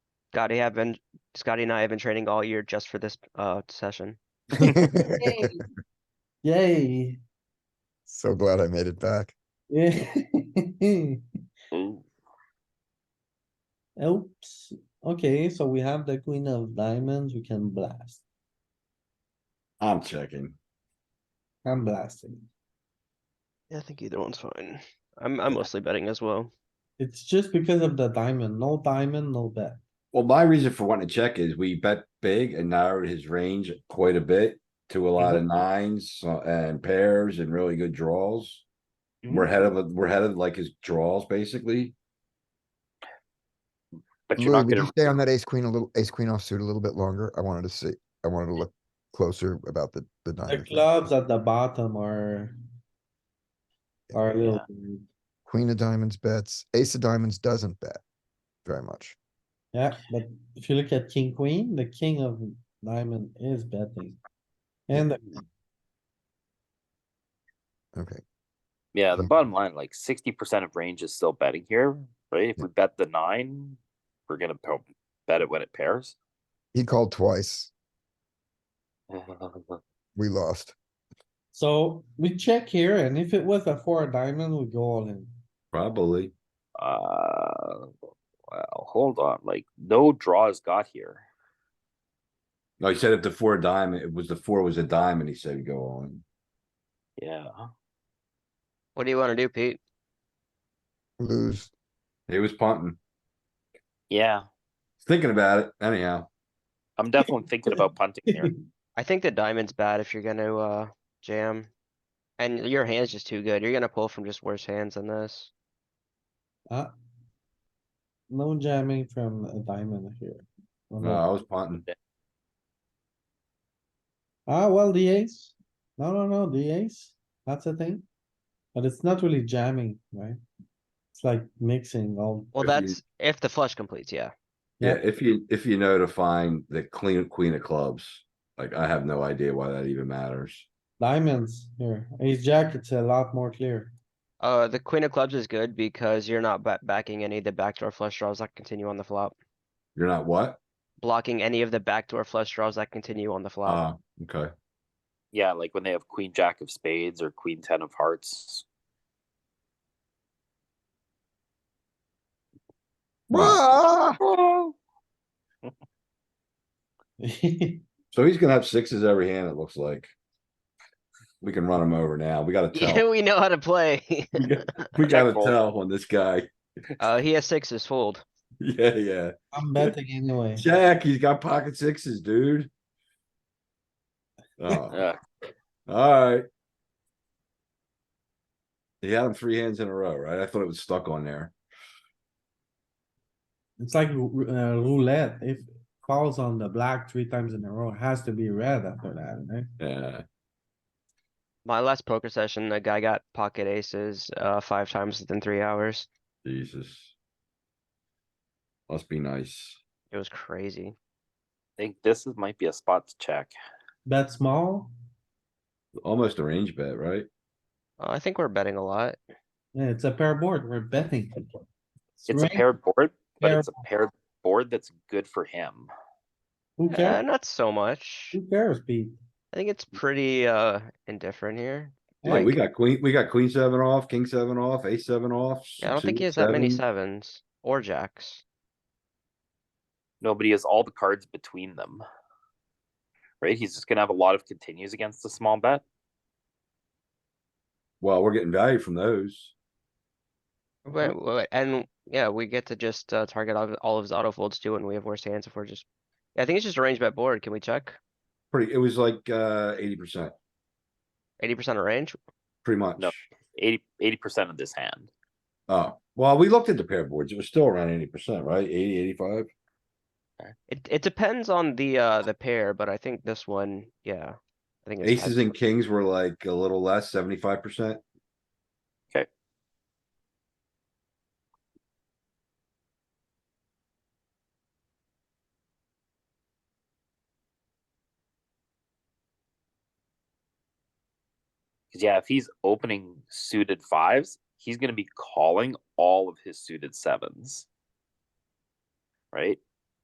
Scotty have been, Scotty and I have been training all year just for this, uh, session. Yay. Yay. So glad I made it back. Yeah. Ooh. Oops, okay, so we have the queen of diamonds, we can blast, I'm checking. I'm blasting. Yeah, I think either one's fine. I'm, I'm mostly betting as well. It's just because of the diamond, no diamond, no bet. Well, my reason for wanting to check is we bet big and narrowed his range quite a bit to a lot of nines so- and pairs and really good draws. We're ahead of, we're ahead of like his draws, basically. But you're Louis, not would you gonna, stay on that ace queen a little, ace queen offsuit a little bit longer? I wanted to see, I wanted to look closer about the, the The nine. clubs at the bottom are. Are a little, weird. Queen of diamonds bets, ace of diamonds doesn't bet very much. yeah, but if you look at king, queen, the king of diamond is betting. And Okay, yeah, the Mhm. bottom line, like sixty percent of range is still betting here, right? If we bet the nine, we're gonna po- bet it when it pairs. he called twice. Uh, We lost. so we check here and if it was a four of diamond, we go all in. Probably. Uh, well, hold on, like no draws got here. No, he said if the four diamond, it was the four was a diamond, he said go on. Yeah, What do you wanna do, Pete? Lose. He was punting, yeah, thinking about it anyhow. I'm definitely thinking about punting here. I think the diamond's bad if you're gonna, uh, jam. And your hand's just too good. You're gonna pull from just worse hands than this. Ah. No jamming from a diamond here. Mm-hmm. No, I was punting. Ah, well, the ace. No, no, no, the ace. That's a thing. But it's not really jamming, right? It's like mixing all. Well, If you- that's if the flush completes, yeah. Yeah, Yeah. if you, if you know to find the clean queen of clubs, like I have no idea why that even matters. Diamonds here. Ace jack, it's a lot more clear. Uh, the queen of clubs is good because you're not ba- backing any of the backdoor flush draws that continue on the flop. You're not what? Blocking any of the backdoor flush draws that continue on the flop. Oh, okay. Yeah, like when they have queen jack of spades or queen ten of hearts. Ah! So he's gonna have sixes every hand, it looks like. We can run him over now. We gotta Yeah, tell. we know how to play. We got- We gotta fold. tell on this guy. Uh, he has sixes fold. Yeah, yeah. I'm betting anyway. Jack, he's got pocket sixes, dude. Oh, Yeah, alright. He had him three hands in a row, right? I thought it was stuck on there. It's like ru- uh, roulette. If falls on the black three times in a row, it has to be red after that, right? Yeah, My last poker session, the guy got pocket aces, uh, five times within three hours. Jesus. Must be nice. It was crazy. I think this is might be a spot to check. Bet small, Almost a range bet, right? Uh, I think we're betting a lot. yeah, it's a pair board. We're betting. It's a Right? paired board, but Pair- it's a paired board that's good for him. Who Uh, cares? not so much. Who cares, Pete? I think it's pretty, uh, indifferent here. Yeah, we Like- got queen, we got queen seven off, king seven off, ace seven off. Yeah, I don't think suit he has that many seven. sevens or jacks. Nobody has all the cards between them. Right? He's just gonna have a lot of continues against the small bet. Well, we're getting value from those. But, but- and yeah, we get to just, uh, target all, of- all of his auto folds too, and we have worse hands if we're just. I think it's just a range bet board. Can we check? Pretty, it was like, uh, eighty percent, Eighty percent of range? pretty much. 80 percent of this hand. Oh, well, we looked at the pair boards. It was still around eighty percent, right? 80, 85. It, it depends on the, uh, the pair, but I think this one, yeah. I think it's Aces and kings were like a little less, seventy-five percent. Okay. Cause yeah, if he's opening suited fives, he's gonna be calling all of his suited sevens. Right?